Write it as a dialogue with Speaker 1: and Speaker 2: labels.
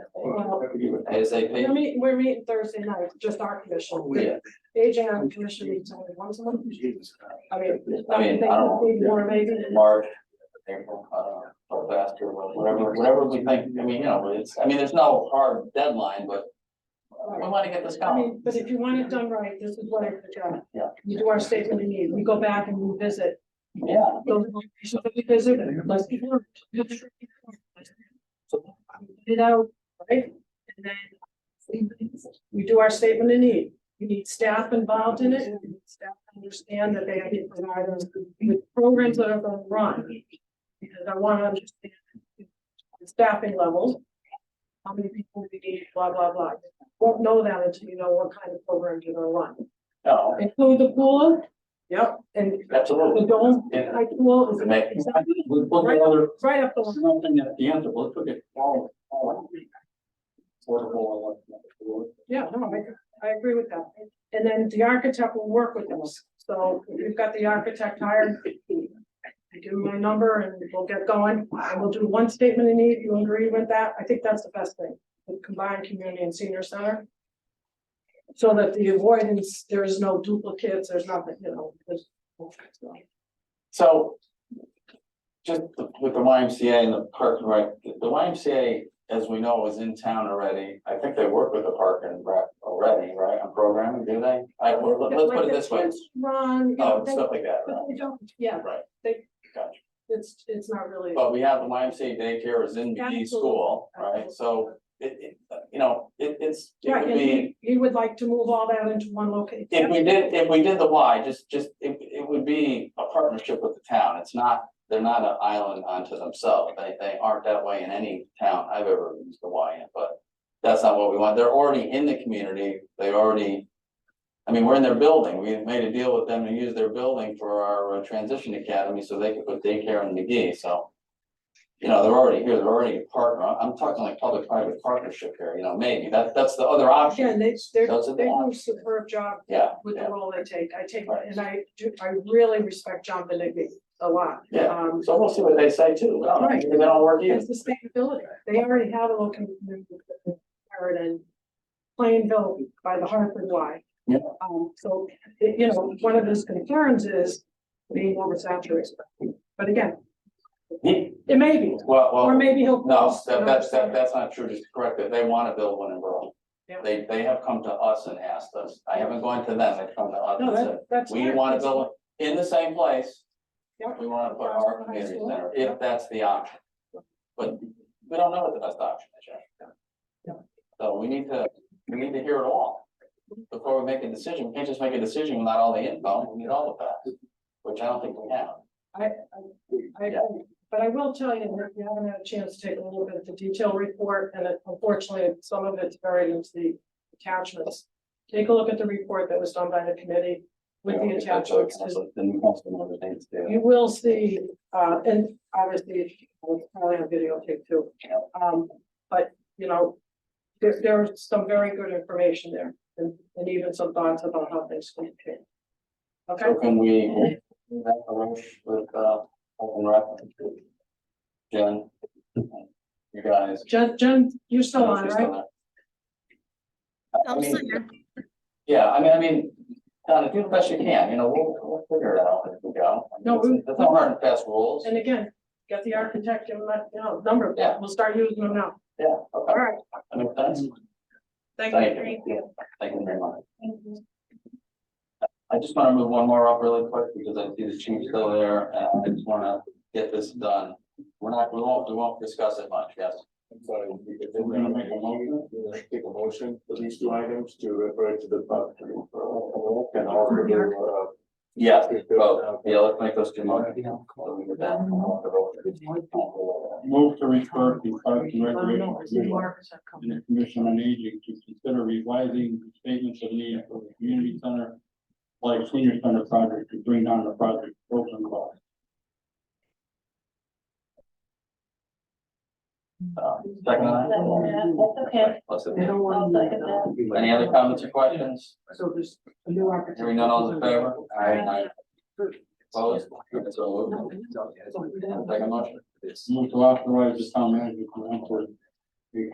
Speaker 1: out. We're
Speaker 2: ASAP.
Speaker 1: meeting, we're meeting Thursday night, just our commission.
Speaker 2: Oh, Yeah,
Speaker 1: AJ on the commission meets only once a month. I mean,
Speaker 2: I
Speaker 1: I think
Speaker 2: mean, I don't
Speaker 1: it'd be more maybe.
Speaker 2: know, March, April, I don't know, or faster, or whatever, whatever we think, I mean, you know, it's, I mean, there's no hard deadline, but we want to get this
Speaker 1: I
Speaker 2: going.
Speaker 1: mean, but if you want it done right, this is what I project.
Speaker 2: Yeah.
Speaker 1: You do our statement of need, we go back and we visit,
Speaker 2: Yeah.
Speaker 1: those locations that we visit, let's be. sure. Put It out, right? And then we do our statement of need. We need staff involved in it. We need Staff to understand that they have to provide us with programs that are going to run. Because I want to understand the staffing levels. How many people we need, blah, blah, blah. Won't know that until you know what kind of program you're going to run.
Speaker 2: No,
Speaker 1: Include the pool. Yep. And the
Speaker 2: absolutely.
Speaker 1: dome,
Speaker 2: Yeah.
Speaker 1: I pool is.
Speaker 2: To make-
Speaker 1: Exactly.
Speaker 3: With one other,
Speaker 1: Right up the line.
Speaker 3: something at the end, but let's look at all, all. Affordable, all.
Speaker 1: Yeah, no, I, I agree with that. And then the architect will work with us. So we've got the architect hired. I give him my number and we'll get going. I will do one statement in need. You agree with that? I think that's the best thing. The combined community and senior center. So that the avoidance, there is no duplicates, there's nothing, you know, there's.
Speaker 2: So just the- with the YMCA and the park, and rec, the YMCA, as we know, is in town already. I think they work with the park and rec already, right, on programming, do they? I, well, let- let's put it this way,
Speaker 1: Ron,
Speaker 2: um, stuff like that, right?
Speaker 1: but they don't, yeah,
Speaker 2: Right.
Speaker 1: They-
Speaker 2: Gotcha.
Speaker 1: it's, it's not really.
Speaker 2: But we have the YMCA daycare is in McGee
Speaker 1: Absolutely.
Speaker 2: School, right? So it, it, you know, it, it's, it
Speaker 1: Right,
Speaker 2: would
Speaker 1: and
Speaker 2: be,
Speaker 1: he, he would like to move all that into one location.
Speaker 2: if we did, if we did the Y, just, just, it, it would be a partnership with the town. It's not, they're not an island unto themselves. They, they aren't that way in any town I've ever used the Y in, but that's not what we want. They're already in the community. They already, I mean, we're in their building. We made a deal with them to use their building for our uh, transition academy so they could put daycare in McGee, so. You know, they're already here, they're already a partner. I'm- I'm talking like public-private partnership here, you know, maybe. That, that's the other
Speaker 1: Again,
Speaker 2: option.
Speaker 1: they, they're,
Speaker 2: Those are the
Speaker 1: they do a
Speaker 2: options.
Speaker 1: superb job
Speaker 2: Yeah,
Speaker 1: with the
Speaker 2: yeah.
Speaker 1: role they take. I take,
Speaker 2: Right.
Speaker 1: and I do, I really respect John Benigni a lot.
Speaker 2: Yeah.
Speaker 1: Um,
Speaker 2: So we'll see what they say too. I don't know,
Speaker 1: Right.
Speaker 2: Maybe they don't work either.
Speaker 1: and sustainability, they already have a little community in Plainville by the Hartford Y.
Speaker 2: Yeah.
Speaker 1: Um, so, it- you know, one of his concerns is being oversaturated. But again,
Speaker 2: He-
Speaker 1: it may be,
Speaker 2: Well, well.
Speaker 1: or maybe he'll.
Speaker 2: No, that, that's, that, that's not true, just correct it, they wanna build one in rural.
Speaker 1: Yeah.
Speaker 2: They, they have come to us and asked us, I haven't gone to them, they've come to us
Speaker 1: No,
Speaker 2: and said,
Speaker 1: that, that's.
Speaker 2: we
Speaker 1: fine.
Speaker 2: wanna build it in the same place.
Speaker 1: Yeah.
Speaker 2: We wanna put our community center, if that's the option. But we don't know what the best option is yet.
Speaker 1: Yeah.
Speaker 2: So we need to, we need to hear it all before we make a decision, we can't just make a decision without all the info, we need all of that, which I don't think we have.
Speaker 1: I, I, I agree, but I will tell you, that we haven't had a chance to take a little bit of the detailed report, and it- unfortunately, some of it's buried into the attachments. Take a look at the report that was done by the committee with
Speaker 2: You know,
Speaker 1: the
Speaker 2: that's what
Speaker 1: attachments,
Speaker 2: council- The new council members need to do.
Speaker 1: you will see, uh, and obviously, it's probably on videotape too. Um, but, you know, there, there's some very good information there, and, and even some thoughts about how things can change. Okay?
Speaker 2: So can we, do that arrange with, uh, open rep? Jen? You guys?
Speaker 1: Jen, Jen, you're still on,
Speaker 2: She's
Speaker 1: right?
Speaker 2: still there. I- I
Speaker 4: I'm still
Speaker 2: mean,
Speaker 4: here.
Speaker 2: Yeah, I mean, I mean, Donna, do the best you can, you know, we'll, we'll figure it out as we go. I mean,
Speaker 1: No, we-
Speaker 2: it's- It's not hard and fast rules.
Speaker 1: And again, get the architect, give him that, you know, number,
Speaker 2: Yeah.
Speaker 1: we'll start using them now.
Speaker 2: Yeah,
Speaker 1: All
Speaker 2: okay,
Speaker 1: right,
Speaker 2: that makes sense.
Speaker 1: thank you.
Speaker 2: Thank you. Thank you very much. I just wanna move one more up really quick because I see the chief still there and I just wanna get this done. We're not, we won't, we won't discuss it much, yes.
Speaker 5: I'm sorry, if we're gonna make a motion, we're gonna take a motion for these two items to refer to the. public for- And order to, uh,
Speaker 2: Yes,
Speaker 5: to-
Speaker 2: both, Oh, yeah, let's make those two motions.
Speaker 3: Move to refer to Parks and Recreation Commission
Speaker 1: All
Speaker 3: and the Commission on Aging to consider revising the statements of need for the community center. Like senior center project to bring down the project program cost.
Speaker 2: Second line.
Speaker 6: okay.
Speaker 2: Let's see.
Speaker 6: I'll second that.
Speaker 2: Any other comments or questions?
Speaker 6: So there's a new architect.
Speaker 2: Hearing none, all in favor? Aye. Opposed? So moved. Second motion.
Speaker 3: Move to authorize the town manager to enter